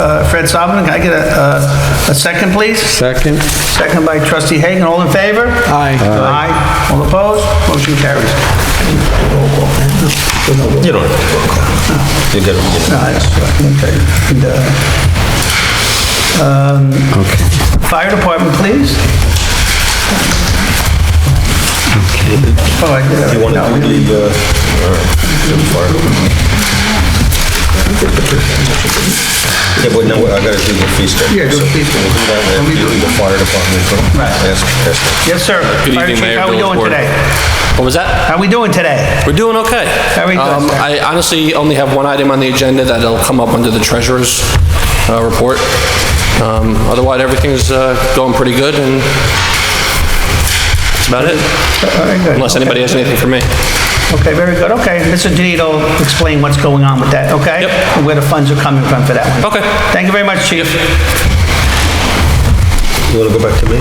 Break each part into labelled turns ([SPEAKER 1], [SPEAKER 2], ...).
[SPEAKER 1] Uh, Fred Sovereign, can I get a, a- a second, please?
[SPEAKER 2] Second?
[SPEAKER 1] Second by trustee Hagan, all in favor?
[SPEAKER 2] Aye.
[SPEAKER 1] Aye. All opposed? Motion carries.
[SPEAKER 3] You don't have to roll call. You got it.
[SPEAKER 1] No, that's right. Okay. And, uh, um, Fire department, please? Oh, I did.
[SPEAKER 3] You want
[SPEAKER 1] No,
[SPEAKER 3] to
[SPEAKER 1] we-
[SPEAKER 3] do the, uh, all right. Yeah, but no, I gotta do the fee schedule.
[SPEAKER 1] Yeah, do the fee schedule.
[SPEAKER 3] So we'll do that,
[SPEAKER 1] Let me
[SPEAKER 3] do
[SPEAKER 1] do it.
[SPEAKER 3] the fire department. so
[SPEAKER 1] Right.
[SPEAKER 3] ask- ask them.
[SPEAKER 1] Yes, sir.
[SPEAKER 4] Good
[SPEAKER 1] Fire
[SPEAKER 4] evening,
[SPEAKER 1] chief,
[SPEAKER 4] Mayor.
[SPEAKER 1] How are we
[SPEAKER 4] Bill
[SPEAKER 1] doing
[SPEAKER 4] Ward.
[SPEAKER 1] today?
[SPEAKER 4] What was that?
[SPEAKER 1] How we doing today?
[SPEAKER 4] We're doing okay.
[SPEAKER 1] How we doing,
[SPEAKER 4] Um,
[SPEAKER 1] sir?
[SPEAKER 4] I honestly only have one item on the agenda that'll come up under the treasurer's uh, report. Um, Otherwise, everything's uh, going pretty good, and that's about it. Unless anybody has anything for me.
[SPEAKER 1] Okay, very good. Okay, Mr. Janito will explain what's going on with that, okay?
[SPEAKER 4] Yep.
[SPEAKER 1] And where the funds are coming from for that one.
[SPEAKER 4] Okay.
[SPEAKER 1] Thank you very much, chief.
[SPEAKER 3] You wanna go back to me?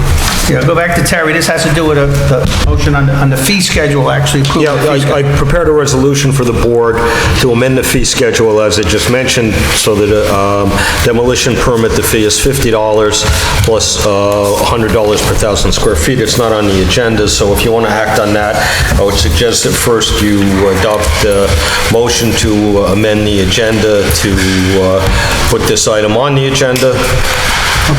[SPEAKER 1] Yeah, go back to Terry. This has to do with a- the motion on the, on the fee schedule, actually. approving
[SPEAKER 5] Yeah,
[SPEAKER 1] the fee
[SPEAKER 5] I- I
[SPEAKER 1] schedule.
[SPEAKER 5] prepared a resolution for the board to amend the fee schedule, as I just mentioned, so that um, demolition permit, the fee is $50 plus uh, $100 per thousand square feet. It's not on the agenda, so if you want to act on that, I would suggest that first you adopt the motion to amend the agenda to uh, put this item on the agenda.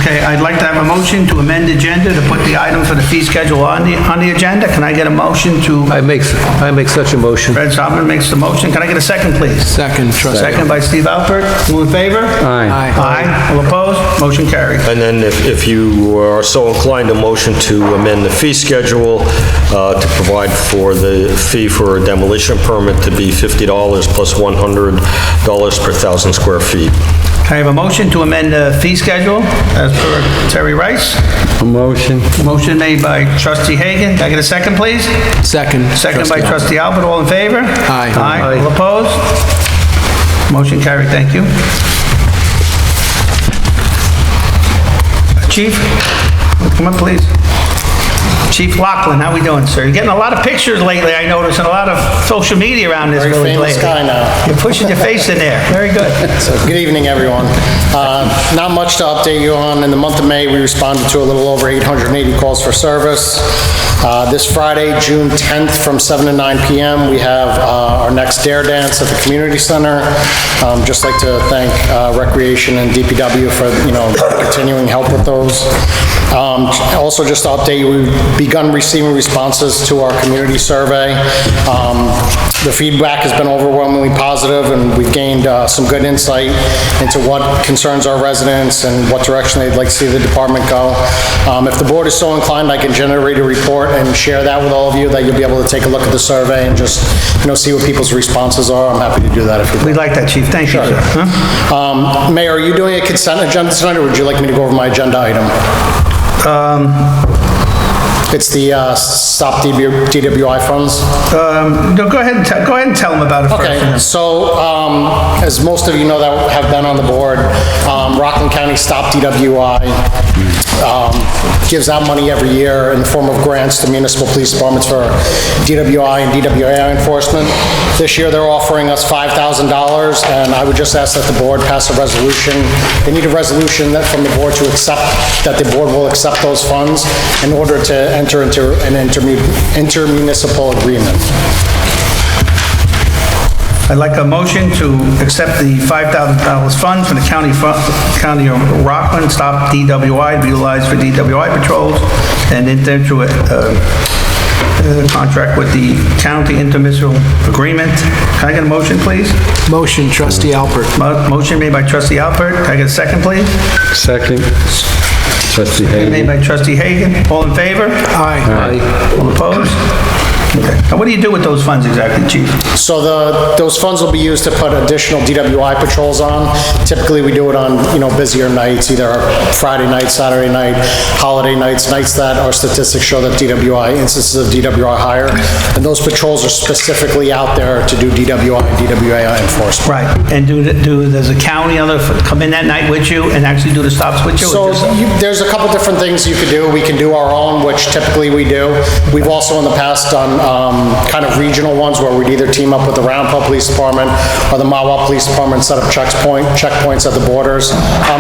[SPEAKER 1] Okay, I'd like to have a motion to amend the agenda to put the item for the fee schedule on the, on the agenda. Can I get a motion to,
[SPEAKER 2] I make, I make such a motion.
[SPEAKER 1] Fred Sovereign makes the motion. Can I get a second, please?
[SPEAKER 2] Second, trustee.
[SPEAKER 1] Second by Steve Alpert. All in favor?
[SPEAKER 2] Aye. Aye.
[SPEAKER 1] Aye. All opposed? Motion carried.
[SPEAKER 5] And then if, if you are so inclined, a motion to amend the fee schedule uh, to provide for the fee for a demolition permit to be $50 plus $100 per thousand square feet.
[SPEAKER 1] Can I have a motion to amend the fee schedule as per Terry Rice?
[SPEAKER 2] A motion.
[SPEAKER 1] Motion made by trustee Hagan. Can I get a second, please?
[SPEAKER 2] Second.
[SPEAKER 1] Second by trustee Albert. All in favor?
[SPEAKER 2] Aye.
[SPEAKER 1] Aye. All opposed? Motion carried. Thank you. Chief, come up, please. Chief Lachlan, how we doing, sir? You're getting a lot of pictures lately, I notice, and a lot of social media around this village
[SPEAKER 6] famous
[SPEAKER 1] lately.
[SPEAKER 6] guy now.
[SPEAKER 1] You're pushing your face in there. Very good.
[SPEAKER 6] So, good evening, everyone. Uh, Not much to update you on. In the month of May, we responded to a little over 880 calls for service. Uh, This Friday, June 10th, from 7 to 9 PM, we have uh, our next Dare Dance at the Community Center. Um, Just like to thank uh, Recreation and DPW for, you know, continuing help with those. Um, Also, just to update you, we've begun receiving responses to our community survey. Um, the feedback has been overwhelmingly positive, and we've gained uh, some good insight into what concerns our residents and what direction they'd like to see the department go. Um, If the board is so inclined, I can generate a report and share that with all of you, that you'll be able to take a look at the survey and just, you know, see what people's responses are. I'm happy to do that if you'd like.
[SPEAKER 1] We like that, chief. Thank you, sir. Huh?
[SPEAKER 6] Um, Mayor, are you doing a consent agenda tonight, or would you like me to go over my agenda item? It's the uh, stop DWI funds.
[SPEAKER 1] Um, no, go ahead and tell, go ahead and tell them about it first.
[SPEAKER 6] Okay, so, um, as most of you know that have been on the board, um, Rockland County Stop DWI, um, gives out money every year in the form of grants to municipal police departments for DWI and DWI enforcement. This year, they're offering us $5,000, and I would just ask that the board pass a resolution. They need a resolution that, from the board to accept, that the board will accept those funds in order to enter into an intermu- intermunicipal agreement.
[SPEAKER 1] I'd like a motion to accept the $5,000 fund from the county, fu- County of Rockland, stop DWI, be utilized for DWI patrols, and enter into a, uh, uh, contract with the county intermunicipal agreement. Can I get a motion, please?
[SPEAKER 2] Motion, trustee Alpert.
[SPEAKER 1] Mo- Motion made by trustee Alpert. Can I get a second, please?
[SPEAKER 2] Second. Trustee
[SPEAKER 1] Made
[SPEAKER 2] Hagan.
[SPEAKER 1] by trustee Hagan. All in favor?
[SPEAKER 2] Aye.
[SPEAKER 1] All opposed? Okay. Now, what do you do with those funds exactly, chief?
[SPEAKER 6] So the, those funds will be used to put additional DWI patrols on. Typically, we do it on, you know, busier nights, either Friday night, Saturday night, holiday nights, nights that our statistics show that DWI, instances of DWI are higher. And those patrols are specifically out there to do DWI and DWAI enforcement.
[SPEAKER 1] Right, and do, do, does the county other, come in that night with you and actually do the stops with you? or
[SPEAKER 6] So
[SPEAKER 1] just-
[SPEAKER 6] you- there's a couple different things you could do. We can do our own, which typically we do. We've also in the past done um, kind of regional ones where we'd either team up with the Round Roundpond Police Department or the Mawa Police Department, set up checks point- checkpoints at the borders. Um,